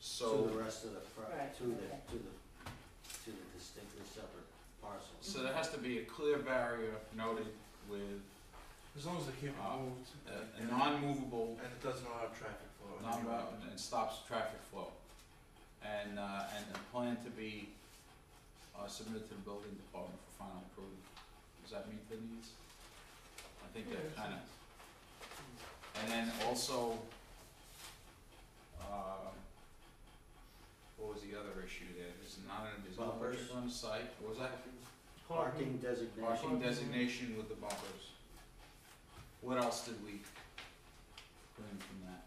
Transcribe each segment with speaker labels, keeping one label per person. Speaker 1: So,
Speaker 2: to the rest of the, pro-
Speaker 3: Right,
Speaker 2: to the,
Speaker 3: okay.
Speaker 2: to the, to the distinctly separate parcels.
Speaker 1: so there has to be a clear barrier noted with
Speaker 4: As long as they can't
Speaker 1: Uh,
Speaker 4: be moved.
Speaker 1: a, a non-movable,
Speaker 4: And it doesn't allow traffic flow.
Speaker 1: non and stops traffic flow. And, uh, and a plan to be, uh, submitted to the building department for final approval. Does that meet the needs? I think that
Speaker 4: Yeah,
Speaker 1: kinda. And then also, uh, what was the other issue there? There's not, there's no
Speaker 2: Bumpers.
Speaker 1: purchase on the site, What was that?
Speaker 2: Parking designation,
Speaker 1: Parking designation with the bumpers. What else did we glean from that?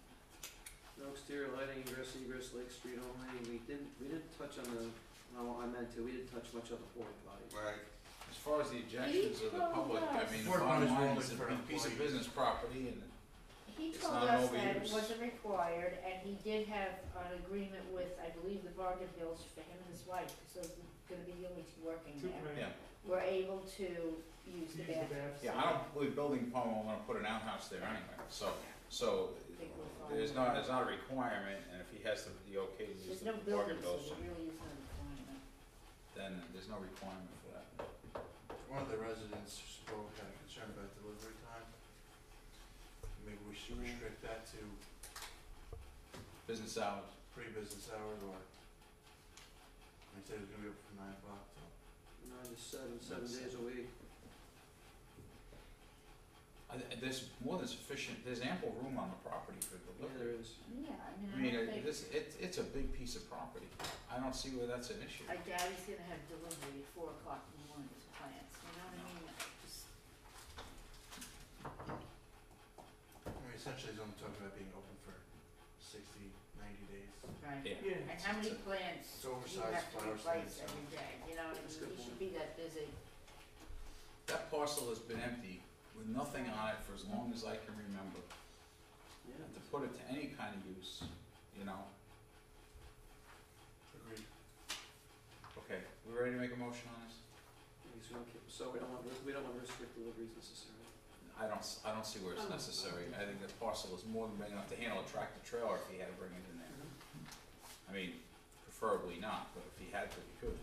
Speaker 5: No exterior lighting, ingress, egress, Lake Street only, we didn't, we didn't touch on the, no, I meant to, we didn't touch much on the porta potty.
Speaker 4: Right.
Speaker 1: As far as the objections of the public, I mean, the
Speaker 4: Fort
Speaker 1: bottom
Speaker 4: Myers
Speaker 1: line
Speaker 4: only
Speaker 1: is a
Speaker 4: for
Speaker 1: big piece of
Speaker 4: employees.
Speaker 1: business property and
Speaker 3: He
Speaker 1: It's
Speaker 3: told
Speaker 1: not
Speaker 3: us
Speaker 1: an
Speaker 3: that it
Speaker 1: overuse.
Speaker 3: wasn't required, and he did have an agreement with, I believe, the Bargain Bills for him and his wife, so they're gonna be the only two working there.
Speaker 1: Yeah.
Speaker 3: Were able to use the bathroom.
Speaker 1: Yeah, I don't believe building department will wanna put an outhouse there anyway, so, so there's not, there's not a requirement, and if he has the, the okay to use
Speaker 3: There's
Speaker 1: the
Speaker 3: no
Speaker 1: bargain
Speaker 3: building, so
Speaker 1: bills,
Speaker 3: there really isn't a requirement.
Speaker 1: then there's no requirement for that.
Speaker 4: One of the residents spoke kind of concerned about delivery time. Maybe we
Speaker 3: Mm.
Speaker 4: should restrict that to
Speaker 1: Business hours,
Speaker 4: pre-business hours or they said it was gonna be open from nine o'clock till.
Speaker 5: No, just seven, seven days a week.
Speaker 1: I, th- there's more than sufficient, there's ample room on the property for
Speaker 5: Yeah,
Speaker 1: delivery.
Speaker 5: there is.
Speaker 3: Yeah,
Speaker 1: I
Speaker 3: I
Speaker 1: mean,
Speaker 3: mean, I
Speaker 1: uh,
Speaker 3: don't think,
Speaker 1: this, it's, it's a big piece of property, I don't see where that's an issue.
Speaker 3: I doubt he's gonna have delivery at four o'clock in the morning to clients, you know what I
Speaker 1: No.
Speaker 3: mean? Just-
Speaker 4: I mean, essentially it's only talking about being open for sixty, ninety days.
Speaker 3: Right.
Speaker 1: Yeah.
Speaker 3: And how many
Speaker 1: It's
Speaker 3: plants
Speaker 4: It's
Speaker 3: do you
Speaker 4: oversized
Speaker 3: have to
Speaker 4: flowers
Speaker 3: replace
Speaker 4: and stuff.
Speaker 3: every day, you know, what I
Speaker 5: That's a
Speaker 3: mean?
Speaker 5: good
Speaker 3: you should
Speaker 5: point.
Speaker 3: be that busy.
Speaker 1: That parcel has been empty with nothing on it for as long as I can remember.
Speaker 5: Yeah.
Speaker 1: And to put it to any kind of use, you know,
Speaker 4: Agreed.
Speaker 1: okay, we ready to make a motion on this?
Speaker 5: Because we don't keep- so we don't want, we don't want to restrict deliveries necessarily.
Speaker 1: I don't, s- I don't see where
Speaker 3: Um,
Speaker 1: it's necessary, I think that parcel is more than big enough to handle a tractor trailer if he had to bring it in there. I mean, preferably not, but if he had to, he could.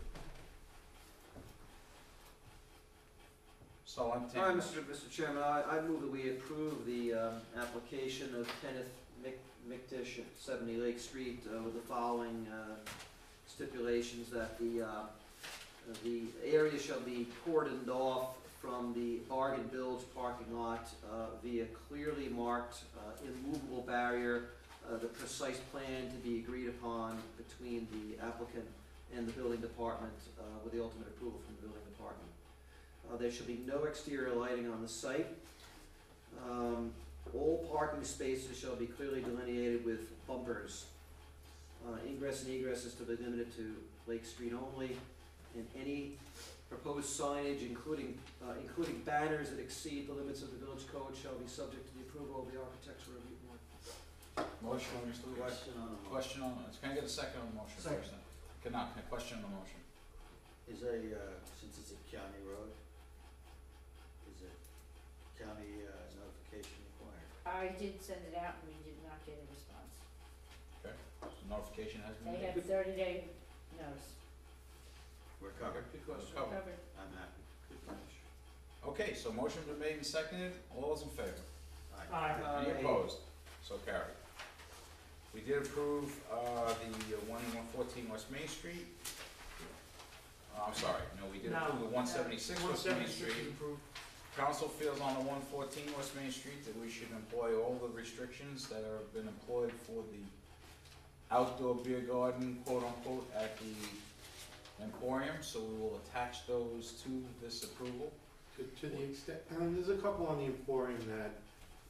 Speaker 1: So I'm
Speaker 5: All right,
Speaker 1: taking,
Speaker 5: Mr. Mr. Chairman, I, I move that we approve the, um, application of Kenneth Mc, McDish at seventy Lake Street uh, with the following, uh, stipulations that the, uh, the area shall be cordoned off from the Bargain Bilge parking lot, uh, via clearly marked, uh, immovable barrier, uh, the precise plan to be agreed upon between the applicant and the building department, uh, with the ultimate approval from the building department. Uh, there shall be no exterior lighting on the site. Um, all parking spaces shall be clearly delineated with bumpers. Uh, ingress and egress is to be limited to Lake Street only, and any proposed signage, including, uh, including banners that exceed the limits of the village code, shall be subject to the approval of the architectural review board.
Speaker 1: motion, Mr. Weiss.
Speaker 2: question on the,
Speaker 1: Question on, can I get a second on the motion
Speaker 2: Second.
Speaker 1: first? then? Can I, can I question on the motion?
Speaker 2: is a, uh, since it's a county road, is it county uh, notification required?
Speaker 3: I did send it out and we did not get a response.
Speaker 1: Notification has been
Speaker 3: They
Speaker 1: made.
Speaker 3: have thirty day notice.
Speaker 2: We're
Speaker 1: Covered.
Speaker 2: covered,
Speaker 5: Good question.
Speaker 1: Covered.
Speaker 3: Covered.
Speaker 2: I'm happy, good finish.
Speaker 1: Okay, so motion been made and seconded, all those in favor?
Speaker 2: Aye.
Speaker 1: Any
Speaker 5: Aye.
Speaker 1: opposed? So carried. We did approve, uh, the one one fourteen West Main Street. Uh, I'm sorry, no, we did
Speaker 4: No.
Speaker 1: approve the one seventy-six
Speaker 4: One
Speaker 1: West Main
Speaker 4: seventy-six
Speaker 1: Street.
Speaker 4: is approved.
Speaker 1: Council feels on the one fourteen West Main Street that we should employ all the restrictions that have been employed for the outdoor beer garden, quote unquote, at the Emporium, so we will attach those to this approval.
Speaker 6: To, to the extent, and there's a couple on the Emporium that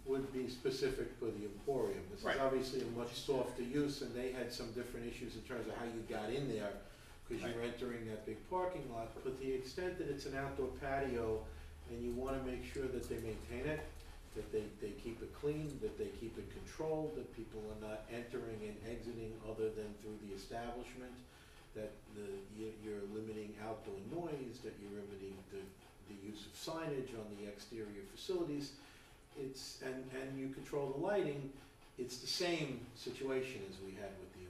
Speaker 6: would be specific for the Emporium. This
Speaker 1: Right.
Speaker 6: is obviously a much softer use, and they had some different issues in terms of how you got in there, because you're entering that big parking lot, but the extent that it's an outdoor patio, and you wanna make sure that they maintain it, that they, they keep it clean, that they keep it controlled, that people are not entering and exiting other than through the establishment, that the, you- you're limiting outdoor noise, that you're limiting the the use of signage on the exterior facilities, it's, and, and you control the lighting, it's the same situation as we had with